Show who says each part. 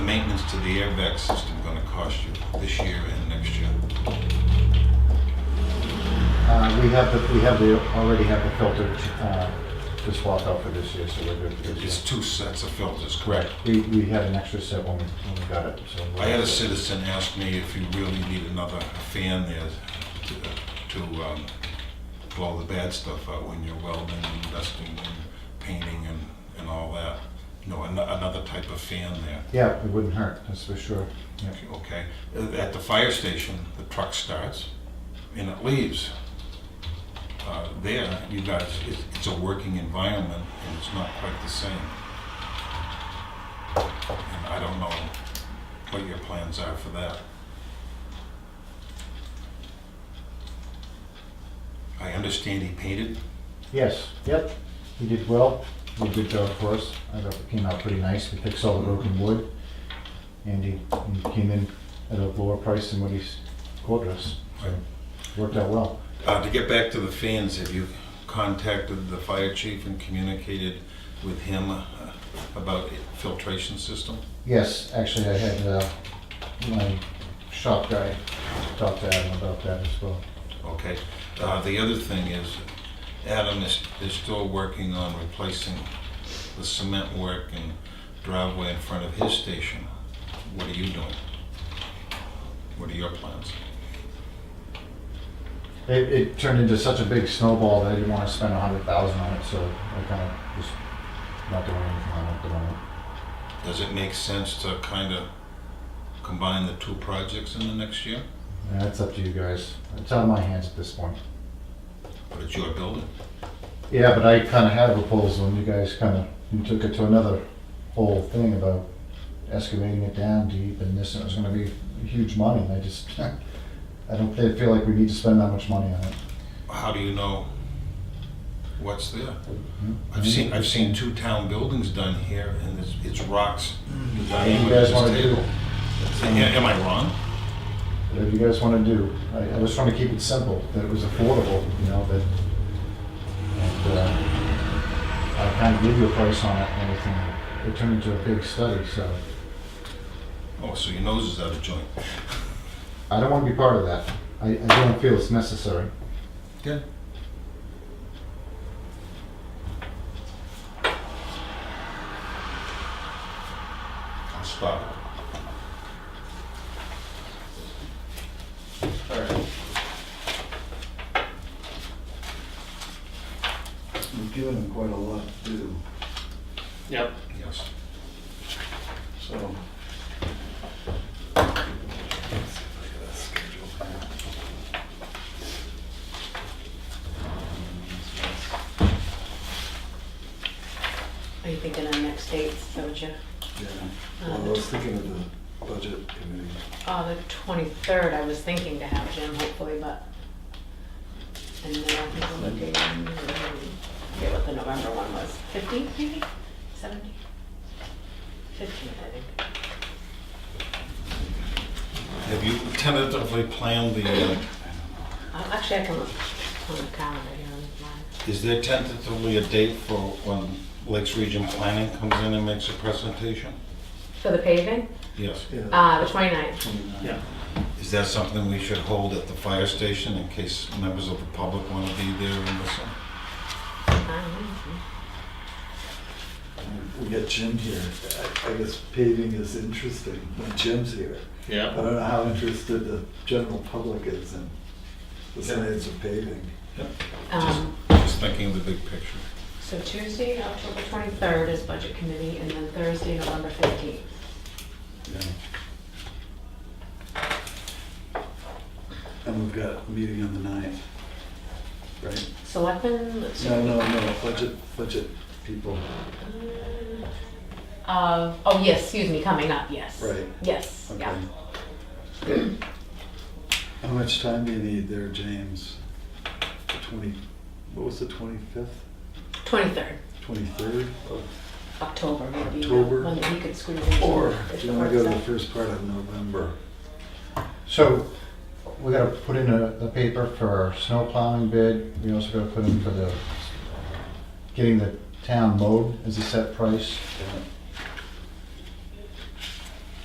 Speaker 1: the airbag system gonna cost you this year and next year?
Speaker 2: Uh, we have the, we have the, already have the filtered, uh, the swap out for this year, so we're good for this
Speaker 1: It's
Speaker 2: year.
Speaker 1: two sets of filters, correct?
Speaker 2: We, we had an extra set when we, when we got it, so. we're-
Speaker 1: I had a citizen ask me if you really need another fan there to- to um, blow the bad stuff out when you're welding and dusting and painting and, and all that. No, an- another type of fan there,
Speaker 2: Yeah, it wouldn't hurt, that's for sure. Yeah.
Speaker 1: okay? At the fire station, the truck starts and it leaves. Uh, There, you guys, it's- it's a working environment and it's not quite the same. And I don't know what your plans are for that. I understand he painted.
Speaker 2: Yes, yep, he did well, he did a good job for us, I thought it came out pretty nice, we fixed all the broken wood. And he, he came in at a lower price than what he's quoted us, so worked out well.
Speaker 1: Uh, to get back to the fans, have you contacted the fire chief and communicated with him uh, about filtration system?
Speaker 2: Yes, actually, I had, uh, my shop guy talk to Adam about that as well.
Speaker 1: Okay. Uh, the other thing is, Adam is, is still working on replacing the cement work and driveway in front of his station. What are you doing? What are your plans?
Speaker 2: It, it turned into such a big snowball that I didn't want to spend a hundred thousand on it, so I kind of just not doing anything on it at the moment.
Speaker 1: Does it make sense to kind of combine the two projects in the next year?
Speaker 2: And That's up to you guys. It's out of my hands at this point.
Speaker 1: But it's your building.
Speaker 2: Yeah, but I kind of had a proposal, and you guys kind of you took it to another whole thing about excavating it down deep and this, and it was going to be huge money. And I just, I don't feel feel like we need to spend that much money on it.
Speaker 1: How do you know what's there?
Speaker 2: Hmm?
Speaker 1: I've seen, I've seen two town buildings done here, and it's, it's rocks. You
Speaker 2: Whatever Mm-hmm. you guys want to do,
Speaker 1: Am I wrong?
Speaker 2: whatever you guys want to do. I, I was trying to keep it simple, that it was affordable, you know, that, and, uh, I kind of gave you a price on it and everything. It turned into a big study, so
Speaker 1: Oh, so your nose is out of joint.
Speaker 2: I don't want to be part of that. I, I don't feel it's necessary.
Speaker 1: Yeah. I'll stop.
Speaker 3: Alright. We've given them quite a lot to do,
Speaker 4: Yep.
Speaker 1: Yes.
Speaker 3: so.
Speaker 5: Are you thinking on next dates, don't you?
Speaker 3: Yeah, well, I was thinking of the budget committee.
Speaker 5: Oh, the twenty-third, I was thinking to have Jim hopefully, but. And then I think I'm looking, I forget what the November one was, fifteen maybe, seventeen? Fifteen, I think.
Speaker 1: Have you tentatively planned the, uh,
Speaker 5: Uh, Actually, I can look on the calendar here on mine.
Speaker 1: is there tentatively a date for when Lakes Region Planning comes in and makes a presentation?
Speaker 5: For the paving,
Speaker 1: Yes.
Speaker 3: Yeah,
Speaker 5: uh, the twenty-ninth,
Speaker 3: 29.
Speaker 4: Yeah.
Speaker 1: Is that something we should hold at the fire station in case members of the public want to be there and listen?
Speaker 3: We get Jim here, I- I guess paving is interesting when Jim's here. I
Speaker 4: Yeah.
Speaker 3: don't know how interested the general public is in the science of paving.
Speaker 5: um,
Speaker 1: Just thinking of the big picture.
Speaker 5: so Tuesday, October twenty-third is budget committee, and then Thursday, November fifteenth.
Speaker 3: And we've got a meeting on the ninth, right?
Speaker 5: Selectmen, let's see.
Speaker 3: No, no, no, budget, budget people,
Speaker 5: Uh, oh, yes, excuse me, coming up, yes.
Speaker 3: Right.
Speaker 5: Yes,
Speaker 3: okay.
Speaker 5: yeah.
Speaker 3: How much time do you need there, James? The Twenty, what was the twenty-fifth,
Speaker 5: 23rd,
Speaker 3: twenty-third?
Speaker 5: October would be
Speaker 3: October.
Speaker 5: one that we could squeeze in.
Speaker 3: Or do you wanna go to the first part of November?
Speaker 2: So we gotta put in a, the paper for our snow plowing bid. We also gotta put in for the, getting the town mowed as a set price.
Speaker 3: Yeah.